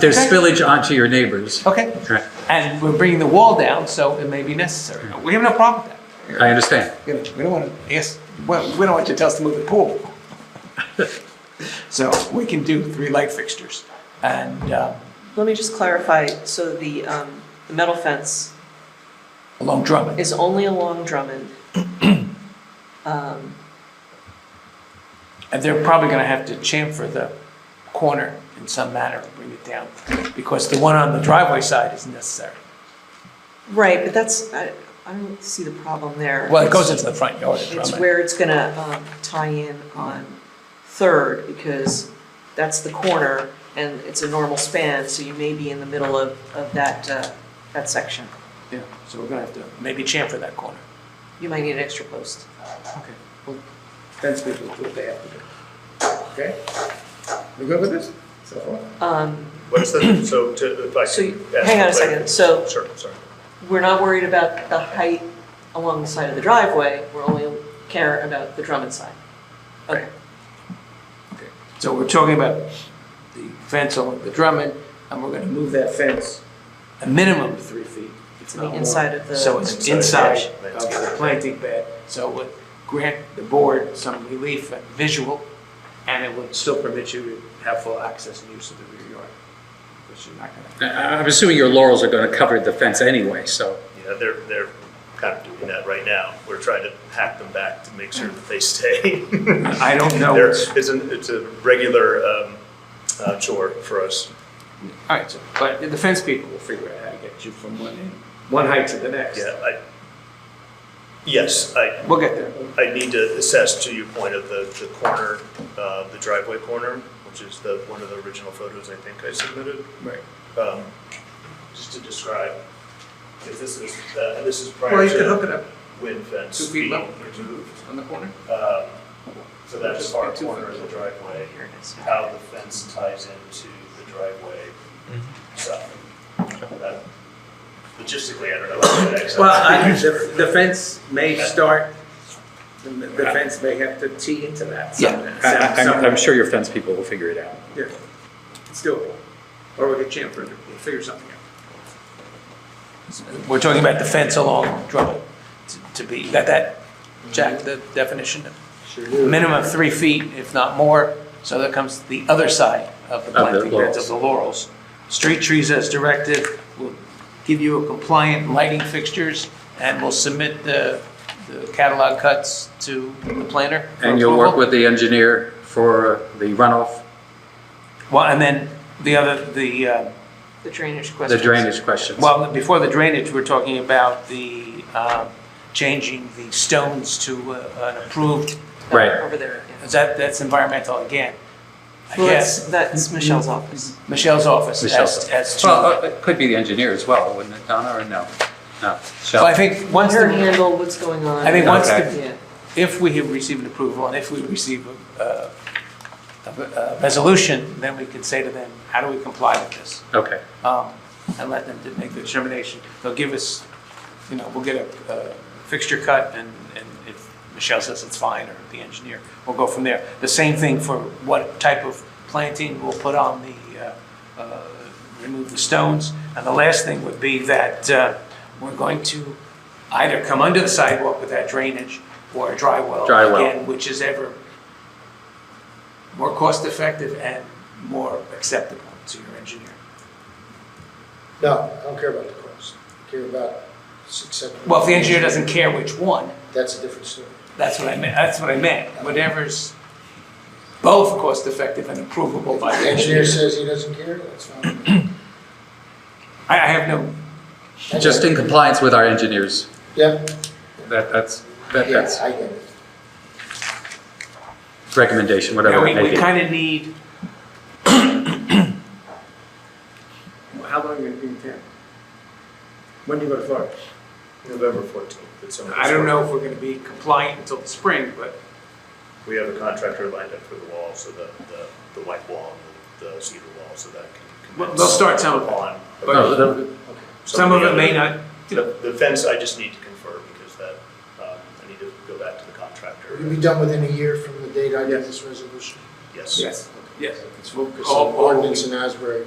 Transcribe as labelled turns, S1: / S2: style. S1: There's
S2: Okay.
S1: spillage onto your neighbors.
S2: Okay,
S1: Right.
S2: and we're bringing the wall down, so it may be necessary. We have no problem with
S1: I understand.
S2: that. You know, We don't want to, yes, well, we don't want you to tell us to move the pool. So we can do three light fixtures. And um,
S3: Let me just clarify, so the, um, the metal fence
S2: along Drummond,
S3: is only along Drummond. Um,
S2: and they're probably going to have to chamfer the corner in some manner and bring it down, because the one on the driveway side isn't necessary.
S3: Right, but that's, I, I don't see the problem there.
S2: Well, it goes into the front yard of
S3: It's
S2: Drummond.
S3: where it's gonna, um, tie in on Third, because that's the corner, and it's a normal span, so you may be in the middle of, of that, uh, that section.
S2: Yeah, so we're going to have to maybe chamfer that corner.
S3: You might need an extra post.
S2: Okay, well, fence people do what they have to do. Okay? We good with this? So far?
S3: Um,
S4: What's the, so to, if I
S3: so, you-
S4: could. ask
S3: hang on a
S4: for
S3: second, so
S4: clarity. Sure, sorry.
S3: we're not worried about the height along the side of the driveway, we're only care about the Drummond side. Okay,
S2: So we're talking about the fence on the Drummond, and we're gonna move that fence a minimum of three feet. It's
S3: To the inside of the-
S2: So it's
S4: Inside.
S2: inside of the planting bed, so it would grant the board some relief and visual, and it would still permit you to have full access and use of the rear yard, which you're not gonna.
S1: I- I'm assuming your laurels are going to cover the fence anyway, so.
S4: Yeah, they're, they're kind of doing that right now. We're trying to hack them back to make sure that they stay.
S2: I don't know.
S4: There,
S2: what's-
S4: it's an, it's a regular, um, uh, chore for us.
S2: All right, so, but the fence people will figure out how to get you from one end, one height to the next.
S4: Yeah, I, yes, I,
S2: We'll get there.
S4: I need to assess to your point of the, the corner, uh, the driveway corner, which is the, one of the original photos I think I submitted.
S2: Right.
S4: Um, just to describe, because this is, uh, this is
S2: Well,
S4: prior
S2: you could hook
S4: to
S2: it up
S4: wind fence.
S2: Two feet
S4: being
S2: level.
S4: removed.
S2: on the corner.
S4: Um, So that's
S2: Just
S4: far
S2: two feet.
S4: corner of the driveway,
S3: here it is.
S4: how the fence ties into the driveway
S2: Mm-hmm.
S4: side. Uh, Logistically, I don't know. what that is.
S5: Well, I, the, the fence may start, the the fence may have to tee into that somehow.
S1: I- I- I'm I'm sure your fence people will figure it out.
S5: Yeah, It's doable, or we could chamfer it, we'll figure something out.
S2: We're talking about the fence along Drummond to- to be, you got that, Jack, the definition? Minimum of three feet, if not more, so that comes the other side of the
S1: the
S2: planting beds
S1: laurels.
S2: of the laurels. Street trees as directed, will give you a compliant lighting fixtures, and we'll submit the the catalog cuts to the planner. for
S1: And you'll work with
S2: approval.
S1: the engineer for the runoff,
S2: Well, and then the other, the, uh,
S3: the drainage
S1: the
S3: questions.
S1: drainage questions.
S2: Well, before the drainage, we're talking about the, um, changing the stones to uh, an approved,
S3: Over-
S1: Right.
S3: Over there, yeah.
S2: is that, that's environmental again. I
S3: Well, that's,
S2: guess,
S3: that's Michelle's office.
S2: Michelle's office
S1: Michelle's.
S2: as, as
S1: Well,
S2: to.
S1: uh, it could be the engineer as well, wouldn't it, Donna, or no? No.
S2: So
S1: Shall-
S2: I think once,
S3: Her
S2: the-
S3: handle, what's going on.
S2: I think
S1: once the-
S3: Yeah.
S2: if we have received an approval and if we receive a, uh, a, a resolution, then we can say to them, how do we comply with this?
S1: Okay,
S2: um, and let them to make the determination. They'll give us, you know, we'll get a uh, fixture cut, and and if Michelle says it's fine, or the engineer, we'll go from there. The same thing for what type of planting we'll put on the, uh, uh, remove the stones. And the last thing would be that uh, we're going to either come under the sidewalk with that drainage or a dry well.
S1: Dry well.
S2: Again, which is ever more cost-effective and more acceptable to your engineer.
S6: No, I don't care about the cost. I care about success.
S2: Well, if the engineer doesn't care which one,
S6: That's a different story.
S2: that's what I meant, that's what I meant, whatever's both cost-effective and approvable by
S6: The
S2: the engineer.
S6: engineer says he doesn't care, that's fine.
S2: I, I have no,
S1: just in compliance with our engineers.
S6: Yeah,
S1: That, that's, that-
S6: yeah,
S1: that's
S6: I get it.
S1: recommendation,
S2: yeah,
S1: whatever
S2: we,
S1: it may
S2: we
S1: be.
S2: kind of need,
S5: How long are you gonna be in town? When do you go to Florida?
S4: November fourteenth. it's on-
S2: I don't know if we're gonna be compliant until the spring, but
S4: We have a contractor lined up for the wall, so the, the, the white wall, and the the cedar wall, so that can
S2: Well,
S4: commence.
S2: they'll start some of it,
S4: upon-
S1: No,
S2: but
S1: Oh, the-
S2: some of it may
S4: the other-
S2: not, you know,
S4: The, the fence, I just need to confirm, because that, um, I need to go back to the
S6: You'll
S4: contractor.
S6: be done within a year from the date I get this resolution.
S4: Yes.
S2: yes, yes. it's- we'll-
S6: Because the
S2: all- all-
S6: ordinance in Asbury